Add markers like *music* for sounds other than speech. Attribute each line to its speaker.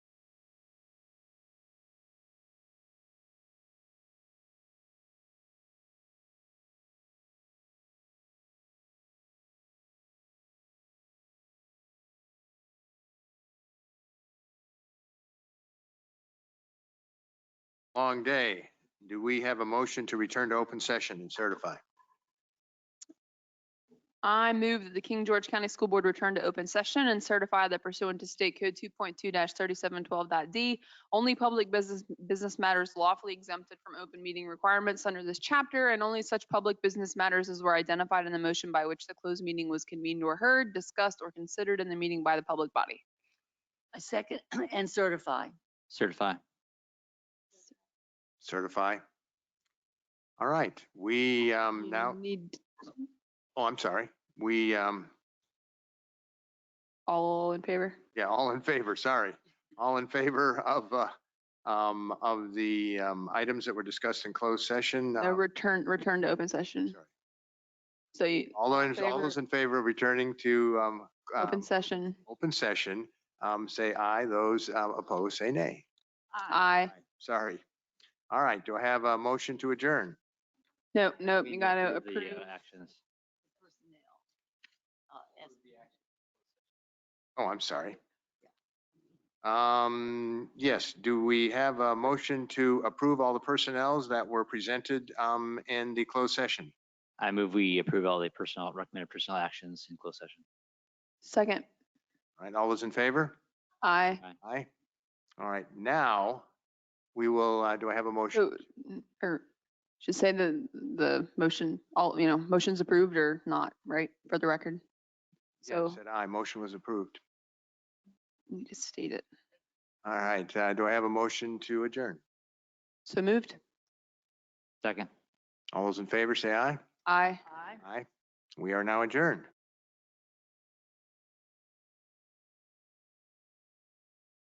Speaker 1: Long day. Do we have a motion to return to open session and certify?
Speaker 2: I move that the King George County School Board return to open session and certify that pursuant to State Code 2.2-3712.d, only public business, business matters lawfully exempted from open meeting requirements under this chapter, and only such public business matters as were identified in the motion by which the closed meeting was convened or heard, discussed, or considered in the meeting by the public body.
Speaker 3: I second *clears throat* and certify.
Speaker 4: Certify.
Speaker 1: Certify. All right, we um, now,
Speaker 2: You Need
Speaker 1: oh, I'm sorry. We, um,
Speaker 2: all in favor?
Speaker 1: yeah, all in favor, sorry. All in favor of, uh, um, of the um, items that were discussed in closed session.
Speaker 2: No,
Speaker 1: uh,
Speaker 2: return, return to open session.
Speaker 1: sorry.
Speaker 2: So you,
Speaker 1: All those, all those in favor of returning to um, um,
Speaker 2: open session,
Speaker 1: open session, um, say aye. Those um, opposed, say nay.
Speaker 2: aye.
Speaker 1: Sorry. All right, do I have a motion to adjourn?
Speaker 2: Nope, nope,
Speaker 4: We
Speaker 2: Oh, you gotta
Speaker 4: approve the,
Speaker 2: approve.
Speaker 4: uh, Actions.
Speaker 3: Personnel.
Speaker 1: Oh, I'm sorry. Um, yes, do we have a motion to approve all the personnels that were presented, um, in the closed session?
Speaker 4: I move we approve all the personnel, recommended personnel actions in closed session.
Speaker 2: Second,
Speaker 1: All right, all those in favor?
Speaker 2: aye.
Speaker 1: Aye. All right, now, we will, uh, do I have a motion?
Speaker 2: So, n- Or should say the, the motion, all, you know, motion's approved or not, right, for the record?
Speaker 1: Yeah,
Speaker 2: So
Speaker 1: Said aye, motion was approved.
Speaker 2: you just state it.
Speaker 1: All right, uh, do I have a motion to adjourn?
Speaker 2: So moved?
Speaker 4: Second.
Speaker 1: All those in favor, say aye.
Speaker 2: Aye.
Speaker 3: Aye.
Speaker 1: Aye. We are now adjourned.